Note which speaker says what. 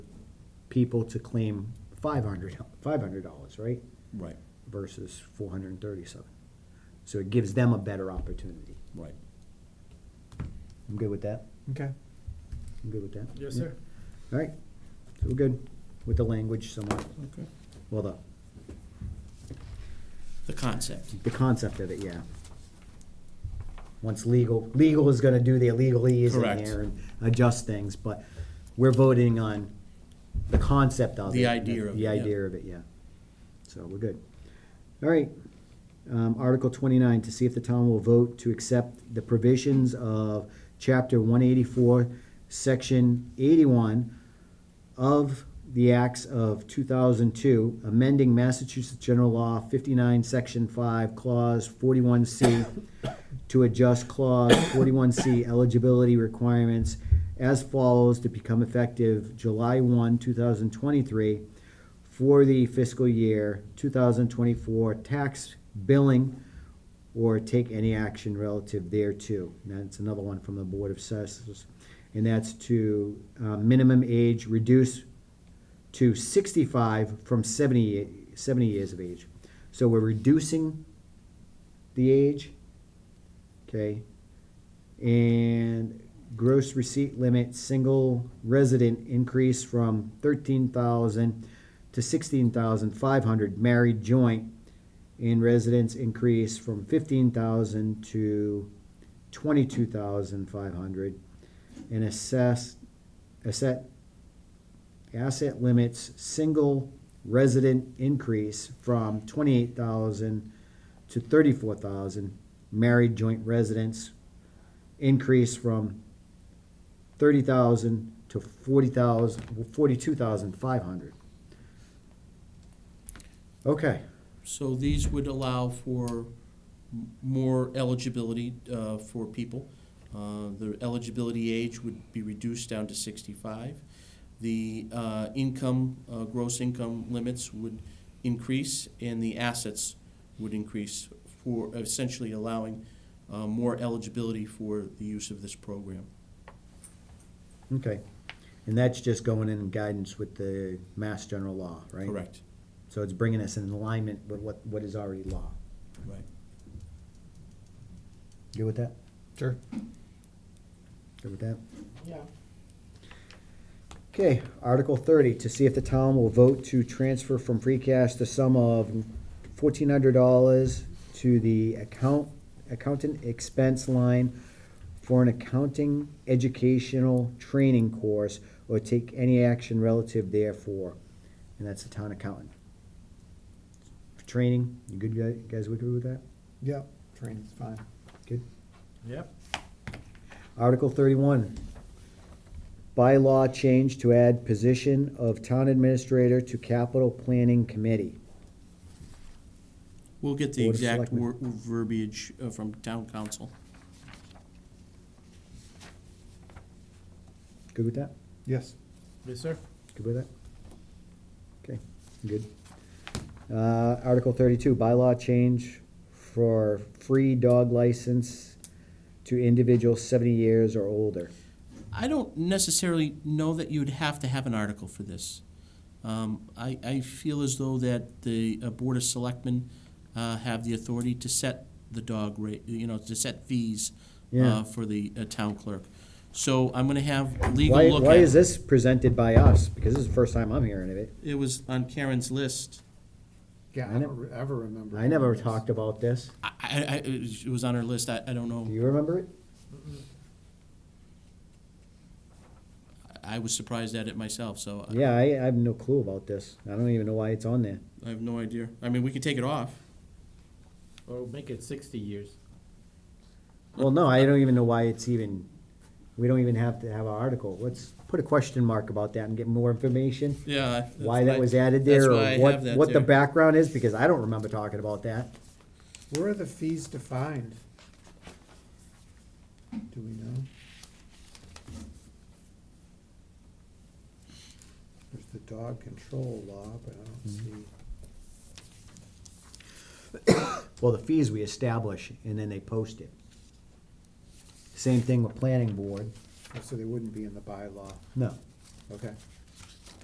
Speaker 1: people to claim five hundred, five hundred dollars, right?
Speaker 2: Right,
Speaker 1: Versus four hundred and thirty-seven. So it gives them a better opportunity.
Speaker 2: right.
Speaker 1: I'm good with that.
Speaker 3: Okay.
Speaker 1: I'm good with that.
Speaker 4: Yes, sir.
Speaker 1: All right, so we're good with the language somewhat,
Speaker 2: Okay.
Speaker 1: well, the,
Speaker 5: the concept.
Speaker 1: the concept of it, yeah. Once legal, legal is gonna do their legalese in
Speaker 5: Correct.
Speaker 1: there and adjust things, but we're voting on the concept of it.
Speaker 5: The idea of it,
Speaker 1: The
Speaker 5: yeah.
Speaker 1: idea of it, yeah. So we're good. All right, um, Article twenty-nine, to see if the town will vote to accept the provisions of chapter one eighty-four, section eighty-one of the acts of two thousand two, amending Massachusetts General Law fifty-nine, section five, clause forty-one C to adjust clause forty-one C eligibility requirements as follows to become effective July one, two thousand twenty-three for the fiscal year two thousand twenty-four tax billing or take any action relative thereto. And that's another one from the Board of Assessors. And that's to uh, minimum age reduce to 65 from 70, ye- 70 years of age. So we're reducing the age, okay? And gross receipt limit, single resident increase from 13,000 to 16,500, married joint in residents increase from fifteen thousand to twenty-two thousand five hundred. And assess, asset, asset limits, single resident increase from twenty-eight thousand to thirty-four thousand. Married joint residents increase from thirty thousand to forty thousand, forty-two thousand five hundred. Okay.
Speaker 5: So these would allow for m- more eligibility uh, for people. Uh, The eligibility age would be reduced down to 65. The uh, income, uh, gross income limits would increase, and the assets would increase for essentially allowing uh, more eligibility for the use of this program.
Speaker 1: Okay, and that's just going in guidance with the mass general law, right?
Speaker 5: Correct.
Speaker 1: So it's bringing us in alignment with what, what is already law.
Speaker 5: Right.
Speaker 1: Good with that?
Speaker 3: Sure.
Speaker 1: Good with that?
Speaker 4: Yeah.
Speaker 1: Okay, Article thirty, to see if the town will vote to transfer from free cash the sum of fourteen hundred dollars to the account, accountant expense line for an accounting educational training course or take any action relative therefore. And that's the town accountant. For Training, you good guy- guys, we good with that?
Speaker 3: Yep. Training's fine.
Speaker 1: Good?
Speaker 4: Yep.
Speaker 1: Article thirty-one, bylaw change to add position of town administrator to capital planning committee.
Speaker 5: We'll get the
Speaker 1: Board of
Speaker 5: exact
Speaker 1: Selectmen.
Speaker 5: wor- verbiage uh, from town council.
Speaker 1: Good with that?
Speaker 3: Yes.
Speaker 4: Yes, sir.
Speaker 1: Good with that? Okay, good. Uh, Article thirty-two, bylaw change for free dog license to individuals seventy years or older.
Speaker 5: I don't necessarily know that you'd have to have an article for this. Um, I, I feel as though that the uh, Board of Selectmen uh, have the authority to set the dog rate, you know, to set fees
Speaker 1: Yeah.
Speaker 5: uh, for the uh, town clerk. So I'm gonna have legal
Speaker 1: Why,
Speaker 5: look
Speaker 1: why
Speaker 5: at
Speaker 1: is this presented by us? Because this is the first time I'm hearing of it.
Speaker 5: It was on Karen's list.
Speaker 3: Yeah,
Speaker 1: I
Speaker 3: I
Speaker 1: never-
Speaker 3: don't re- ever remember.
Speaker 1: I never
Speaker 3: this.
Speaker 1: talked about this.
Speaker 5: I, I, I- it was- it was on her list. I, I don't
Speaker 1: Do
Speaker 5: know.
Speaker 1: you remember it?
Speaker 5: I was surprised at it myself, so I-
Speaker 1: Yeah, I, I have no clue about this. I don't even know why it's on there.
Speaker 5: I have no idea. I mean, we could take it off.
Speaker 4: Or make it sixty years.
Speaker 1: Well, no, I don't even know why it's even, we don't even have to have an article. Let's put a question mark about that and get more information.
Speaker 5: Yeah. that's
Speaker 1: Why
Speaker 5: what
Speaker 1: that
Speaker 5: I-
Speaker 1: was added there
Speaker 5: that's
Speaker 1: or
Speaker 5: why I
Speaker 1: what,
Speaker 5: have that
Speaker 1: what the
Speaker 5: there.
Speaker 1: background is, because I don't remember talking about that.
Speaker 3: Where are the fees defined? Do we know? There's the dog control law, but I don't
Speaker 1: Mm-hmm.
Speaker 3: see.
Speaker 1: Well, the fees we establish and then they post it. Same thing with planning board.
Speaker 3: oh, So they wouldn't be in the bylaw.
Speaker 1: No,
Speaker 3: Okay.